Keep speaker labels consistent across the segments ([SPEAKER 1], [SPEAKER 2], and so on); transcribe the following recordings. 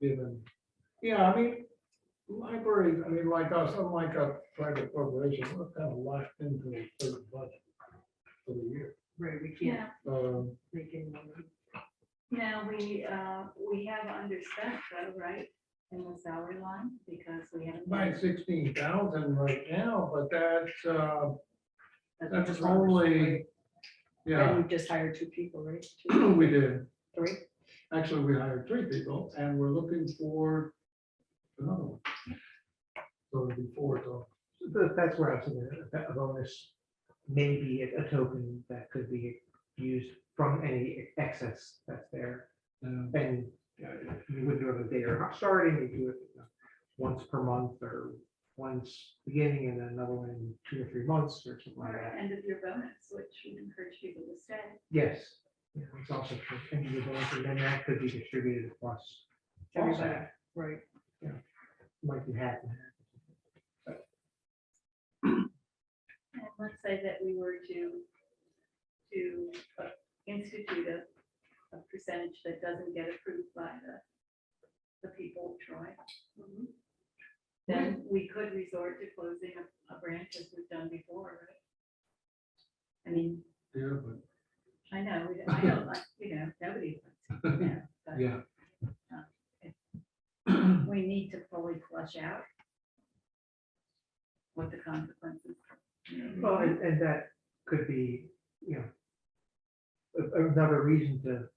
[SPEAKER 1] given. Yeah, I mean, library, I mean, like us, unlike a private corporation, we're kind of locked into a certain budget for the year.
[SPEAKER 2] Right, we can't
[SPEAKER 3] Yeah,
[SPEAKER 1] Um,
[SPEAKER 2] make any money.
[SPEAKER 3] now we, uh, we have underspent though, right? In the salary line because we haven't.
[SPEAKER 1] By sixteen thousand right now, but that's, uh,
[SPEAKER 2] what
[SPEAKER 1] that's
[SPEAKER 2] Robert said, right?
[SPEAKER 1] only,
[SPEAKER 2] And
[SPEAKER 1] yeah,
[SPEAKER 2] we just hired two people, right? Two,
[SPEAKER 1] we did.
[SPEAKER 2] Three?
[SPEAKER 1] Actually, we hired three people and we're looking for another one. So it'd be four, so.
[SPEAKER 4] But That's where I was thinking, that a bonus may be a a token that could be used from any excess that's there.
[SPEAKER 1] um,
[SPEAKER 4] And uh, you wouldn't do it if they are not starting, you do it uh, once per month or once beginning and then another one in two or three months or something like
[SPEAKER 3] Or
[SPEAKER 4] that.
[SPEAKER 3] end of your bonus, which we encourage people to stay.
[SPEAKER 4] Yes, Yeah, it's also, for any of those, and then that could be distributed across.
[SPEAKER 2] Everybody,
[SPEAKER 4] also,
[SPEAKER 2] right.
[SPEAKER 4] Like you had.
[SPEAKER 3] And let's say that we were to, to uh, institute a, a percentage that doesn't get approved by the, the people of Troy. Then we could resort to closing a, a branch as we've done before, right? I mean,
[SPEAKER 1] Yeah, but
[SPEAKER 3] I know, we- I don't like, you know, nobody wants to do that, but um,
[SPEAKER 1] Yeah.
[SPEAKER 3] we need to fully flush out what the consequences.
[SPEAKER 4] Well, and, and that could be, you know, a- another reason to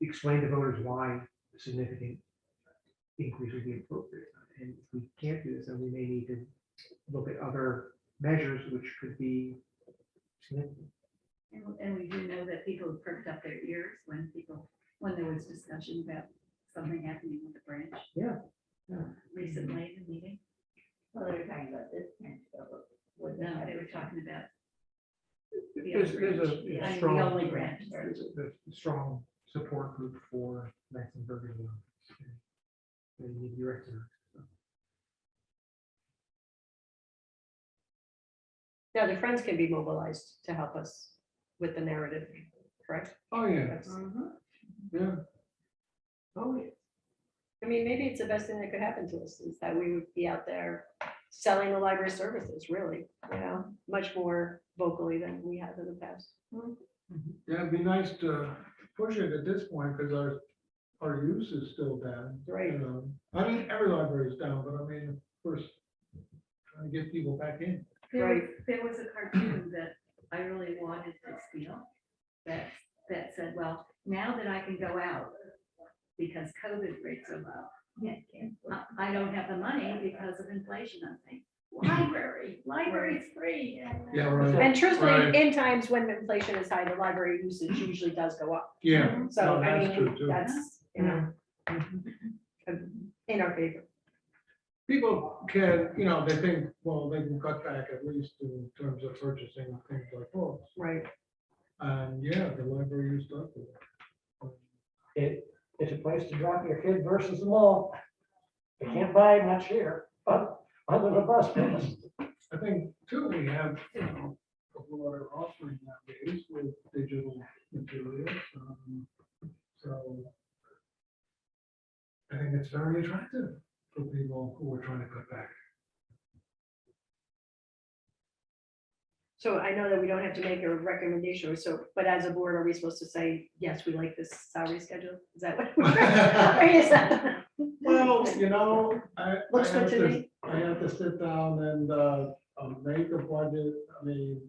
[SPEAKER 4] explain to voters why a significant increase would be appropriate. And if we can't do this, then we may need to look at other measures which could be significant.
[SPEAKER 3] And, and we do know that people perked up their ears when people, when there was discussion about something happening with the branch.
[SPEAKER 4] Yeah, yeah.
[SPEAKER 3] Recently, in the meeting.
[SPEAKER 5] Well, they were talking about this branch, but what-
[SPEAKER 3] No, they were talking about the
[SPEAKER 4] There's,
[SPEAKER 3] other
[SPEAKER 4] there's
[SPEAKER 3] branch.
[SPEAKER 4] a
[SPEAKER 3] I mean,
[SPEAKER 4] yeah,
[SPEAKER 3] the
[SPEAKER 4] strong.
[SPEAKER 3] only branch.
[SPEAKER 4] There's a there's a strong support group for Lansingburg. and, uh, They need to be recognized.
[SPEAKER 2] Yeah, the friends can be mobilized to help us with the narrative, correct?
[SPEAKER 1] Oh, yeah,
[SPEAKER 2] That's-
[SPEAKER 5] Mm-hmm.
[SPEAKER 1] yeah.
[SPEAKER 2] Oh, yeah. I mean, maybe it's the best thing that could happen to us is that we would be out there selling the library services, really, you know, much more vocally than we have in the past.
[SPEAKER 1] Yeah, it'd be nice to push it at this point, because our, our use is still down.
[SPEAKER 2] Right.
[SPEAKER 1] you know. I mean, every library is down, but I mean, first, trying to get people back in.
[SPEAKER 3] There was, there was a cartoon that I really wanted to steal that, that said, well, now that I can go out because COVID rates are low. I- I don't have the money because of inflation, I'm thinking, library, library's free.
[SPEAKER 1] Yeah, right.
[SPEAKER 2] And
[SPEAKER 1] Right.
[SPEAKER 2] truthfully, in times when inflation is high, the library usage usually does go up.
[SPEAKER 1] Yeah.
[SPEAKER 2] So
[SPEAKER 1] No,
[SPEAKER 2] I
[SPEAKER 1] Oh, that's true,
[SPEAKER 2] mean,
[SPEAKER 1] too.
[SPEAKER 2] that's, you know, um, in our favor.
[SPEAKER 1] People can, you know, they think, well, they can cut back at least in terms of purchasing things like books.
[SPEAKER 2] Right.
[SPEAKER 1] And yeah, the library used up. with it.
[SPEAKER 6] It, it's a place to drop your kid versus the mall. They can't buy much here, but other than bus pass.
[SPEAKER 1] I think too, we have, you know, a broader offering nowadays with digital materials. um, So I think it's very attractive for people who are trying to cut back.
[SPEAKER 2] So I know that we don't have to make a recommendation, or so, but as a board, are we supposed to say, yes, we like this salary schedule? Is that what? Or is that-
[SPEAKER 1] Well, you know, I.
[SPEAKER 2] Looks
[SPEAKER 1] I
[SPEAKER 2] good
[SPEAKER 1] have
[SPEAKER 2] to me.
[SPEAKER 1] I have to sit down and, uh, uh, make a budget, I mean,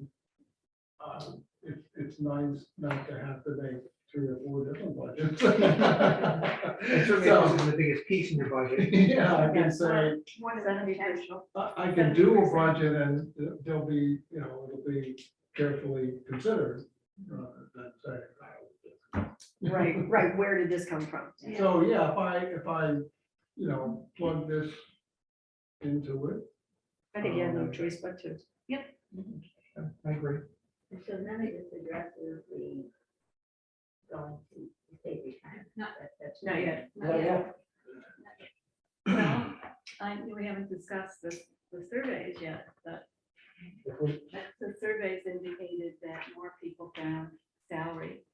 [SPEAKER 1] um, it's, it's nice not to have to make three or four different budgets.
[SPEAKER 4] It certainly
[SPEAKER 1] So,
[SPEAKER 4] wasn't the biggest piece in your budget.
[SPEAKER 1] Yeah, I can say,
[SPEAKER 3] One seventy percent.
[SPEAKER 1] I I can do a budget and they'll be, you know, it'll be carefully considered. rather than say,
[SPEAKER 2] Right, right, where did this come from?
[SPEAKER 1] So, yeah, if I, if I, you know, plug this into it,
[SPEAKER 2] I think you
[SPEAKER 1] Oh,
[SPEAKER 2] have no choice but to.
[SPEAKER 4] I agree.
[SPEAKER 5] And so then it just addresses the going to state retirement.
[SPEAKER 3] Not-
[SPEAKER 5] That- that's-
[SPEAKER 2] Not yet.
[SPEAKER 3] Oh,
[SPEAKER 6] Not
[SPEAKER 3] Well, I, we haven't discussed the, the surveys yet, but
[SPEAKER 6] If we-
[SPEAKER 3] the surveys indicated that more people found salary